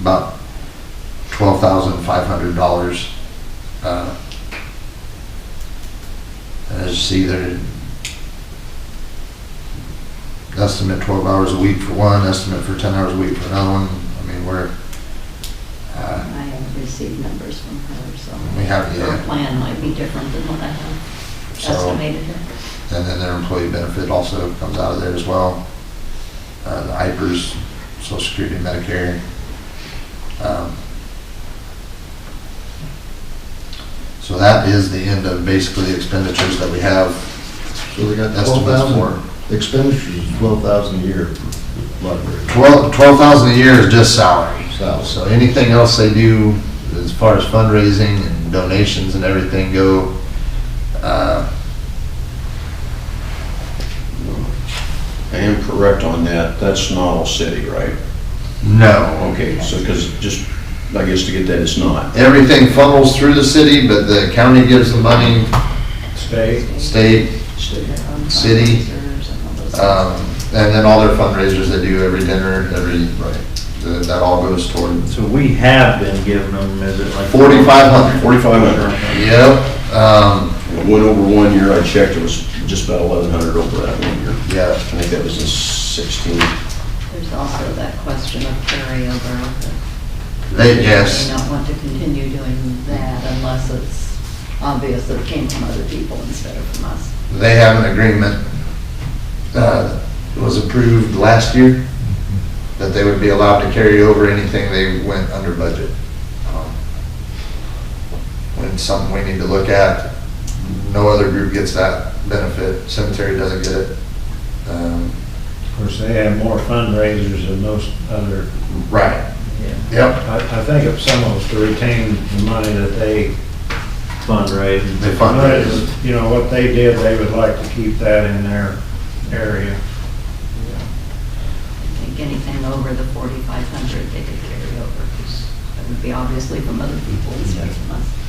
about twelve thousand five hundred dollars. uh, As either estimate twelve hours a week for one, estimate for ten hours a week for another one. I mean, we're, I uh, haven't received numbers from her, so. We haven't Her yet. plan might be different than what I have so. estimated here. And then their employee benefit also comes out of there as well. Uh, the IPERS, social security, Medicare. Um, So that is the end of basically the expenditures that we have. So we got twelve Estimates for. thousand, expenditures is twelve thousand a year for library. Twelve, twelve thousand a year is just salary. Salary. So anything else they do as far as fundraising and donations and everything go, uh, I am correct on that, that's not all city, right? no. Okay, so, because just, I guess to get that, it's not. Everything funnels through the city, but the county gives the money, Stay. state, Their own City, fundraisers and all those things. Um, and then all their fundraisers they do every dinner, every, that that all goes toward So we have been giving them, is it like? forty-five hundred. Forty-five hundred. Yep, um, Went over one year, I checked, it was just about eleven hundred over that one year. yeah, I think that was in sixteen. There's also that question of carryover. of the- they, yes, They may not want to continue doing that unless it's obvious that it came from other people instead of from us. they have an agreement, uh, that was approved last year, that they would be allowed to carry over anything they went under budget. Um, And something we need to look at, no other group gets that benefit, cemetery doesn't get it. Um, Of course, they have more fundraisers than most other, Right, yep. I, I think if someone was to retain the money that they, Fundraising. They fundraise. you know, what they did, they would like to keep that in their area. I think anything over the 4,500 they could carry over, because that would be obviously from other people instead of from us.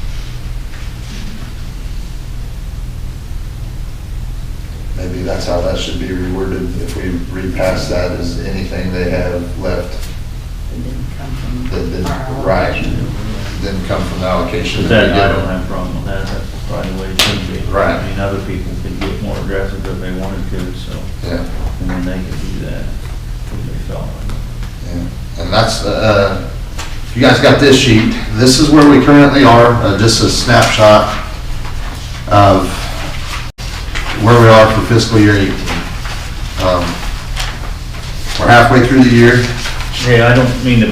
Maybe that's how that should be reworded, if we repass that as anything they have left It didn't come from. that didn't, our right, allocation. didn't come from the allocation. But that that, we I give don't them. have a problem with that, that's probably the way it should be. Right. I mean, other people could get more aggressive if they wanted to, so, Yeah, and then they could do that if they felt like it. yeah, and that's, uh, you guys got this sheet, this is where we currently are, uh, just a snapshot of where we are for fiscal year eighteen. Um, We're halfway through the year. Hey, I don't mean to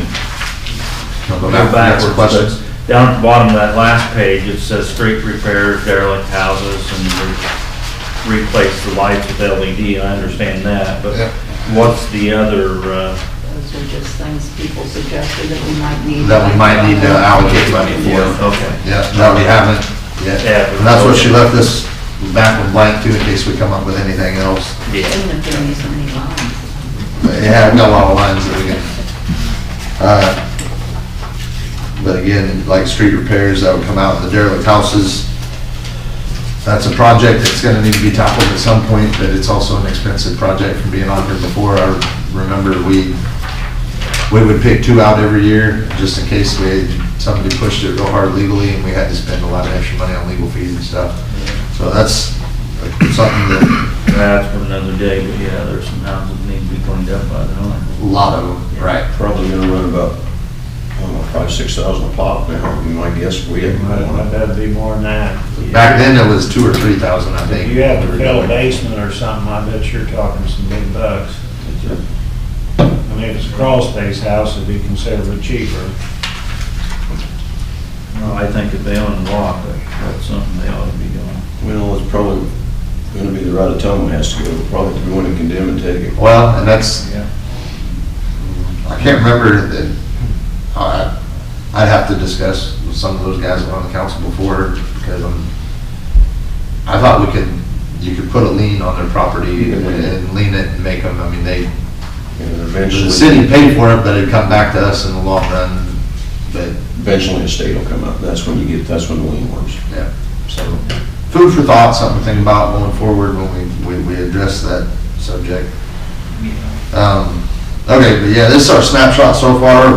I'll go back if you got backwards, some but down at the bottom of that last page, it says street repairs, derelict houses, and re- replace the lights with LED, I understand that, but Yeah. what's the other, uh, Those are just things people suggested that we might need. That we might need to allocate money for. okay. Yeah, no, we haven't yet. Yeah, but- And that's what she left this back with blank too, in case we come up with anything else. Yeah. Even if there is any lines. But yeah, we got a lot of lines that we can. uh, But again, like street repairs, that would come out of the derelict houses. That's a project that's gonna need to be tackled at some point, but it's also an expensive project from being on here before. I remember we, we would pick two out every year, just in case we, somebody pushed it real hard legally and we had to spend a lot of extra money on legal fees and stuff. So that's something that, That's for another day, but yeah, there's some houses that need to be cleaned up by the owner. a lot of, them, right? Probably gonna run about, I don't know, five, six thousand a pop now, would be my guess. We But haven't but That'd be more than that. Back then, it was two or three thousand, I If think. you have to fill a basement or something, I bet you're talking some big bucks. I mean, if it's a crawl space house, it'd be considerably cheaper. Well, I think if they own a lot, that- that's something they ought to be doing. Well, it's probably gonna be the route of town has to go, probably to go in and condemn and take it. Well, and that's, Yeah. I can't remember that, I, I'd have to discuss with some of those guys that were on the council before, because I'm, I thought we could, you could put a lien on their property and and lien it and make them, I mean, they, And the eventually, city paid for it, but it'd come back to us in the long run, but, Eventually, the state will come up, that's when you get, that's when the lien works. yeah, so. Food for thought, something to think about going forward when we, we, we address that subject. Um, Okay, but yeah, this is our snapshot so far.